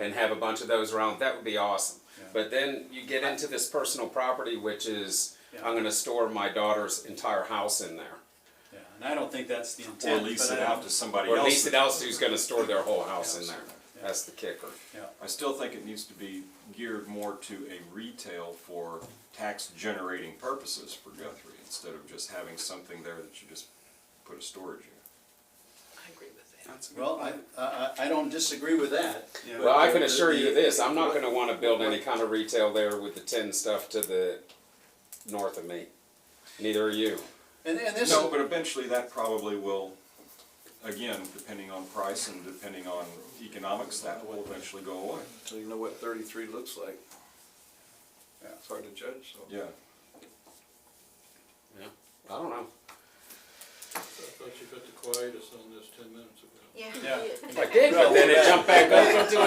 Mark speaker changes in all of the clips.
Speaker 1: and have a bunch of those around. That would be awesome.
Speaker 2: Yeah.
Speaker 1: But then you get into this personal property, which is
Speaker 2: Yeah.
Speaker 1: I'm going to store my daughter's entire house in there,
Speaker 2: Yeah, and I don't think that's the intent.
Speaker 3: Or lease
Speaker 2: but
Speaker 3: it
Speaker 2: I
Speaker 3: out
Speaker 2: don't-
Speaker 3: to somebody
Speaker 1: or at
Speaker 3: else.
Speaker 1: least it else who's going to store their whole house in
Speaker 2: House.
Speaker 1: there.
Speaker 2: Yeah.
Speaker 1: That's the kicker.
Speaker 2: Yeah,
Speaker 3: I still think it needs to be geared more to a retail for tax generating purposes for Guthrie, instead of just having something there that you just put a storage in.
Speaker 4: I agree with that.
Speaker 1: That's
Speaker 2: well, I, I, I don't disagree with that. but
Speaker 1: Well, I can
Speaker 2: the-
Speaker 1: assure you
Speaker 2: the-
Speaker 1: this, I'm not gonna wanna build any kind of retail there with the tin stuff to the north of me. Neither are you.
Speaker 2: And, and this,
Speaker 3: No, but eventually that probably will, again, depending on price and depending on economics, that will eventually go away.
Speaker 5: Until you know what thirty-three looks like.
Speaker 2: Yeah.
Speaker 5: It's hard to judge, so.
Speaker 3: Yeah,
Speaker 1: I don't know.
Speaker 6: I thought you got the quietest on this ten minutes ago.
Speaker 7: Yeah.
Speaker 2: Yeah.
Speaker 7: you-
Speaker 1: I did, but then it jumped back up into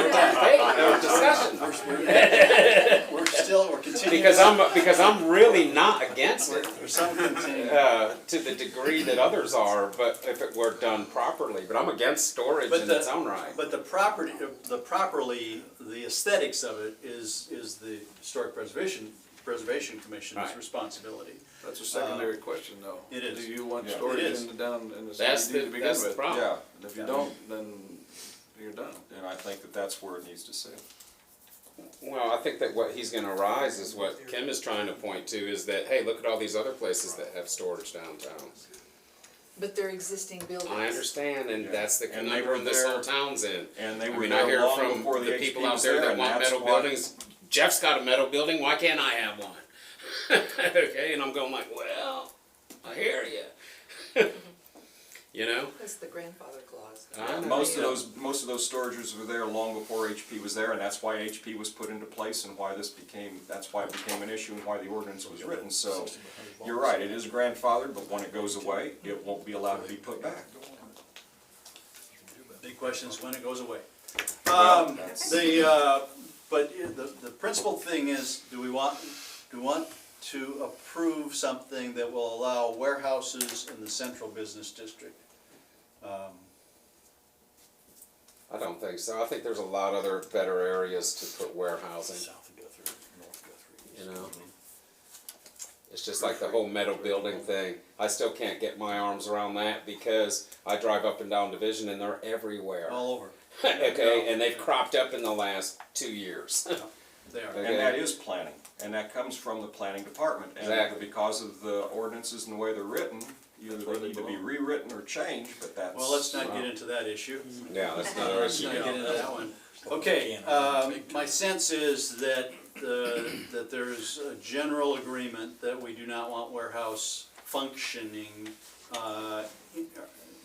Speaker 1: a debate or discussion.
Speaker 2: we're still, we're continuing.
Speaker 1: Because I'm, because I'm really not against
Speaker 2: We're,
Speaker 1: it,
Speaker 2: we're some continuing.
Speaker 1: uh, to the degree that others are, but if it were done properly, but I'm against storage
Speaker 2: But
Speaker 1: in
Speaker 2: the-
Speaker 1: its own right.
Speaker 2: But the property, the properly, the aesthetics of it is, is the Historic Preservation, Preservation Commission's
Speaker 1: Right.
Speaker 2: responsibility.
Speaker 5: That's a secondary question, though.
Speaker 2: it is.
Speaker 5: Do you want
Speaker 3: Yeah.
Speaker 2: It
Speaker 5: storage
Speaker 2: is.
Speaker 5: in the down, in the
Speaker 1: That's
Speaker 5: CBD
Speaker 1: the-
Speaker 5: to begin with?
Speaker 1: that's the problem.
Speaker 3: yeah,
Speaker 5: And If you
Speaker 2: Yeah.
Speaker 5: don't, then you're done.
Speaker 3: and I think that that's where it needs to sit.
Speaker 1: Well, I think that what he's gonna rise is what Kim is trying to point to, is that, hey, look at all these other places that have storage downtown.
Speaker 7: But they're existing buildings.
Speaker 1: I understand, and that's the
Speaker 3: And they were
Speaker 1: conundrum this whole
Speaker 3: there-
Speaker 1: town's in.
Speaker 3: And they
Speaker 1: I
Speaker 3: were
Speaker 1: mean, I
Speaker 3: there
Speaker 1: hear
Speaker 3: long
Speaker 1: from
Speaker 3: before
Speaker 1: the
Speaker 3: the
Speaker 1: people
Speaker 3: HP
Speaker 1: out
Speaker 3: was
Speaker 1: there
Speaker 3: there,
Speaker 1: that
Speaker 3: and
Speaker 1: want
Speaker 3: that's
Speaker 1: metal
Speaker 3: why-
Speaker 1: buildings. Jeff's got a metal building, why can't I have one? Okay, and I'm going like, well, I hear you. You know?
Speaker 7: That's the grandfather clause.
Speaker 1: I know.
Speaker 3: Most of those, most of those storages were there long before HP was there, and that's why HP was put into place and why this became, that's why it became an issue and why the ordinance was written, so. You're right, it is grandfathered, but when it goes away, it won't be allowed to be put back.
Speaker 2: Big question is when it goes away.
Speaker 3: Well,
Speaker 2: Um,
Speaker 3: that's-
Speaker 2: the, uh, but i- the, the principal thing is, do we want, do we want to approve something that will allow warehouses in the central business district? Um,
Speaker 1: I don't think so, I think there's a lot other better areas to put warehousing,
Speaker 8: South of Guthrie, North Guthrie.
Speaker 1: you know? It's just like the whole metal building thing, I still can't get my arms around that because I drive up and down Division and they're everywhere.
Speaker 2: All over,
Speaker 1: okay, and they've cropped up in the last two years.
Speaker 2: they are.
Speaker 1: Okay.
Speaker 3: And that is planning, and that comes from the planning department. And
Speaker 1: Exactly.
Speaker 3: because of the ordinances and the way they're written, either
Speaker 5: where
Speaker 3: they
Speaker 5: they
Speaker 3: need to be
Speaker 5: belong.
Speaker 3: rewritten or changed, but that's.
Speaker 2: Well, let's not get into that issue.
Speaker 1: yeah, that's not our
Speaker 2: Let's
Speaker 1: issue.
Speaker 2: not get into that one. Okay, um, my sense is that, uh, that there's a general agreement that we do not want warehouse functioning, uh, in-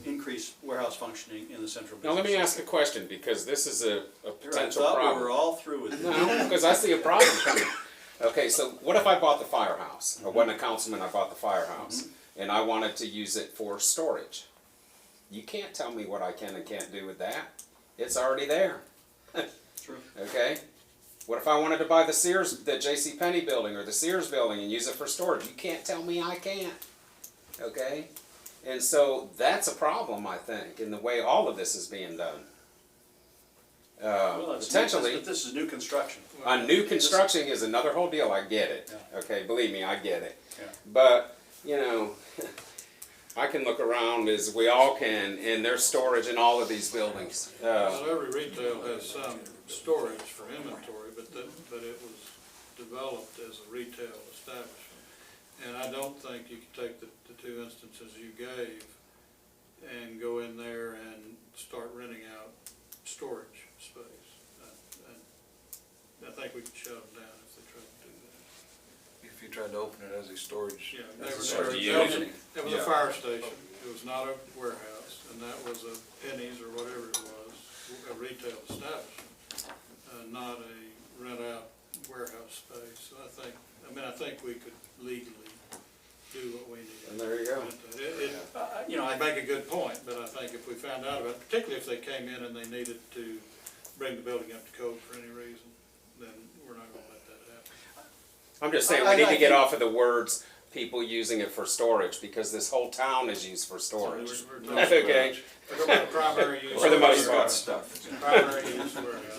Speaker 2: increased warehouse functioning in the central
Speaker 1: Now let
Speaker 2: business.
Speaker 1: me ask a question because this is a, a
Speaker 2: Here, I
Speaker 1: potential
Speaker 2: thought we were
Speaker 1: problem.
Speaker 2: all through with it.
Speaker 1: No, because I see a problem coming. Okay, so what if I bought the firehouse? I wasn't a councilman. I bought the firehouse, and I wanted to use it for storage. You can't tell me what I can and can't do with that. It's already there.
Speaker 2: True.
Speaker 1: Okay. What if I wanted to buy the Sears, the J.C. Penney building or the Sears building and use it for storage? You can't tell me I can't. Okay. And so that's a problem, I think, in the way all of this is being done. Uh,
Speaker 2: Well, it's new-
Speaker 1: potentially,
Speaker 2: But this is new construction.
Speaker 1: on new construction is another whole deal. I get it.
Speaker 2: Yeah.
Speaker 1: Okay, believe me, I get it.
Speaker 2: Yeah.
Speaker 1: But you know, I can look around as we all can, and there's storage in all of these buildings. Uh,
Speaker 6: Not every retail has some storage for inventory, but the, but it was developed as a retail establishment. And I don't think you can take the, the two instances you gave and go in there and start renting out storage space. I- I I think we can shut them down if they try to do that.
Speaker 5: If you tried to open it as a storage.
Speaker 6: Yeah,
Speaker 5: as a
Speaker 6: they were-
Speaker 5: storage
Speaker 6: they were-
Speaker 5: building.
Speaker 6: It was a fire station, it was not a warehouse, and that was a pennies or whatever it was, a retail establishment, uh, not a rent out warehouse space. So I think, I mean, I think we could legally do what we
Speaker 1: and
Speaker 6: need.
Speaker 1: there you go.
Speaker 6: It, it,
Speaker 2: Uh, You know,
Speaker 6: I
Speaker 2: I,
Speaker 6: make a good point, but I think if we found out about, it, particularly if they came in and they needed to bring the building up to code for any reason, then we're not gonna let that happen.
Speaker 1: I'm just saying,
Speaker 2: I-
Speaker 1: we need
Speaker 2: I
Speaker 1: to get
Speaker 2: think-
Speaker 1: off of the words people using it for storage because this whole town is used for storage.
Speaker 6: So we're- we're talking
Speaker 1: Okay.
Speaker 6: about Primary use.
Speaker 1: For the most
Speaker 3: It's
Speaker 1: part.
Speaker 3: got stuff.
Speaker 6: Primary use warehouse.